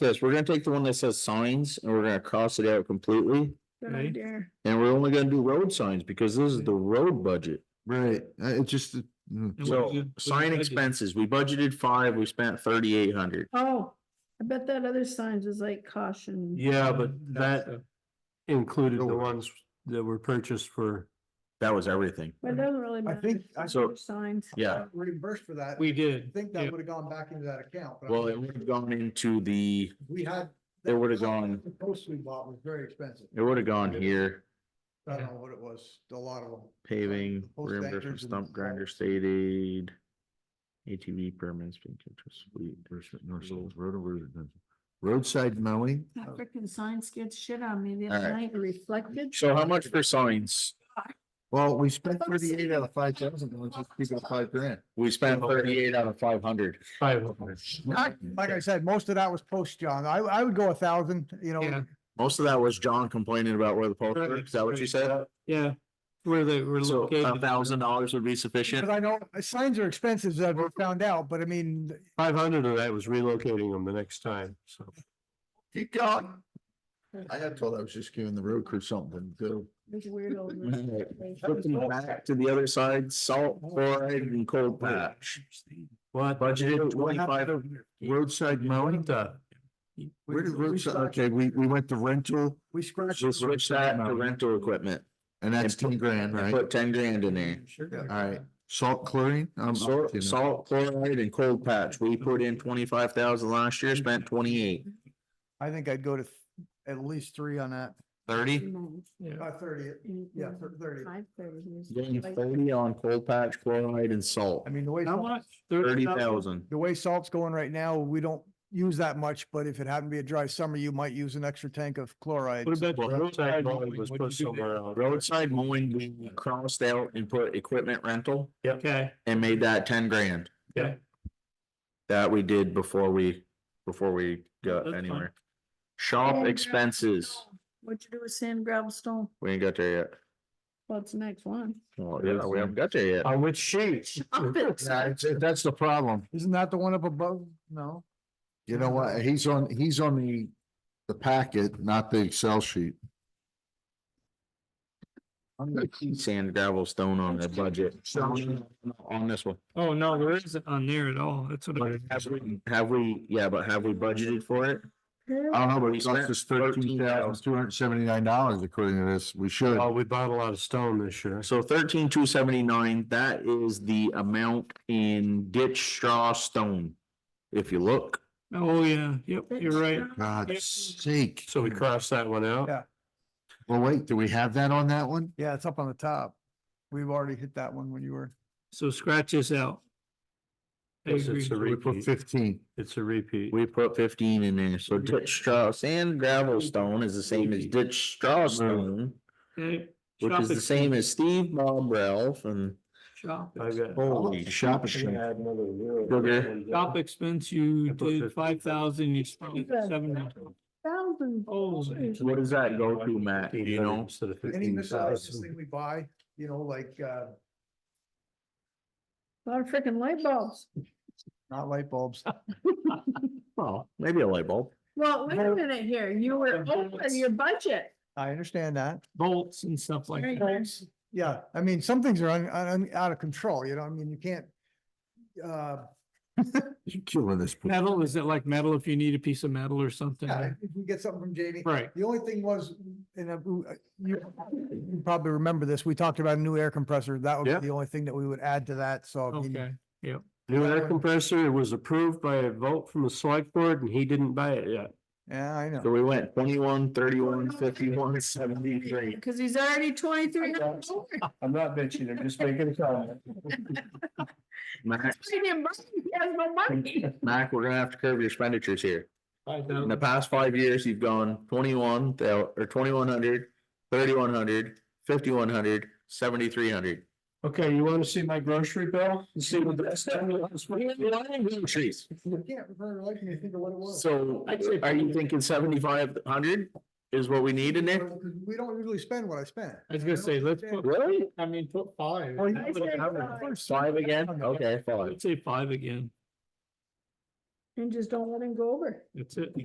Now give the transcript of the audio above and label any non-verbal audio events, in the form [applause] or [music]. Yes, we're gonna take the one that says signs and we're gonna cross it out completely. Good Right. idea. And we're only gonna do road signs because this is the road budget. Right, uh, it just, uh, And what mm. did you- So what did you sign budget? expenses, we budgeted five, we spent thirty eight hundred. Oh, I bet that other signs is like caution. Yeah, but That's that the- included The the ones- ones that were purchased for, That was everything. But it doesn't really matter. think if it's I- other Signs. Yeah, reimbursed for that. We I did. think yeah. that would have gone back into that account. but I well, it think would have gone into the, We had. it would've gone- The post we bought was very expensive. it would have gone here, I don't know what it was, a lot of them. paving, Post reimbursement, anchors and stump grinder, stuff. state aid. ATV permits, being kept fleet. Reimbursement, North Shore Road and Road- Roadside mowing, That frickin' sign scared shit on me the All other right. night, it reflected. So how much for signs? well, we spent Folks. thirty-eight out of five thousand, let's just keep it at five grand. We spent thirty eight out of five hundred. Five of them. Like I said, most of that was post, John. I, I would go a thousand, you Yeah, know, Most of that was John complaining about where the poles were, is that what you said? yeah, where they were So a located. thousand dollars would be sufficient? because I know uh, signs are expensive, as we found out, but I mean, five hundred of that was relocating them the next time, so. Keep going. I had thought I was just giving the road crew something to. This [laughs] weirdo. Put them back to the other side, salt, chloride and cold patch. What? Budgeted What twenty-five. happened to Roadside mowing, where did roadside, okay, we, we went to rental we scratched. Just switch that to rental equipment and that's And put- ten grand, and right? put ten grand in there. All right, salt chlorine. I'm- I'm Salt, kidding. salt, chloride and cold patch. We put in twenty-five thousand last year, spent twenty-eight. I think I'd go to th- at least three on that. Thirty? Uh, thirty, yeah, thir- thirty. Five thirty. Getting thirty on cold patch, chloride and salt, I mean, the way. How salt- much? thirty thousand. The way salt's going right now, we don't use that much, but if it happened to be a dry summer, you might use an extra tank of chloride. What about Well, the roadside mowing mowing, was what'd put you do there? somewhere else? Roadside mowing, we crossed out and put equipment rental Okay, and made that ten grand. Yeah. That we did before we, before we got That's fine. anywhere. Shop expenses, What you do with sand, gravel, stone? we ain't got there yet. What's the next one? Well, yeah, we haven't got there yet. On [laughs] which sheet? Up [laughs] it. Yeah, it's- that's the problem. Isn't that the one up above? No? You know what? He's on, he's on the, the packet, not the Excel sheet. I'm gonna keep sand gravel stone on the budget. On this one. oh, no, there isn't on there at all, that's what. I- Have we, have we, yeah, but have we budgeted for it? Uh-huh. I don't know, but We it cost spent us thirteen thousand, two hundred and seventy-nine dollars according to this. We should. Oh, we bought a lot of stone this year. So thirteen two seventy-nine, that is the amount in ditch straw stone. If you look, Oh, yeah, yep, you're right. God's sake. So we crossed that one out. Yeah. Well, wait, do we have that on that one? Yeah, it's up on the top. We've already hit that one when you were. So scratch this out. I Yes, agree. it's a We put repeat. fifteen. It's a repeat. we put fifteen in there, so ditch straw, sand gravel stone is the same as ditch straw Uh, stone. Okay, Which shop is the ex- same as Steve Bob Ralph and Shop, I've ex- got. holy Shop shit. machine. shop expense, you I put did 50. five thousand, you spent Yeah. seven. Thousand. Oh, dollars. What does that go to, Matt? Do you know? Instead of Any fifteen miscellaneous thousand. thing we buy, you know, like, uh, Lot of frickin' light bulbs. not light bulbs. Well, maybe a light bulb. Well, wait a minute here, you were over your budget. I understand that. Bolts and stuff like There you that. go. Yeah, I mean, some things are un, un, out of control, you know, I mean, you can't. Uh, You're killing this. Metal, is it like metal if you need a piece of metal or something? yeah, if we get something from Jamie. Right, The only thing was, and I- uh, you you probably remember this, we talked about a new air compressor. That Yeah. would be the only thing that we would add to that, so. I mean, okay. New air compressor, it was approved by a vote from the select board and he didn't buy it yet. Yeah, I know. So we went twenty-one, thirty-one, fifty-one, seventy-three. Cause he's already twenty-three. That's- I'm not bitching, I'm just making a comment. Mac, He Mac, we're gonna have to curb your expenditures here. Five In the thousand. past five years, you've gone twenty-one thou- or twenty-one hundred, thirty-one hundred, fifty-one hundred, seventy-three hundred. Okay, you wanna see my grocery bill? You See what that's done? Trees. You can't remember, like, you think of what it was. So I'd say- are you thinking seventy-five hundred is what we need in there? Because We don't usually spend what I spent. I was gonna say, let's put, Really? I mean, put five. Oh, Well, you- That would've covered it. Five again? Okay, five. I'd say five again, And just don't let him go over. that's it.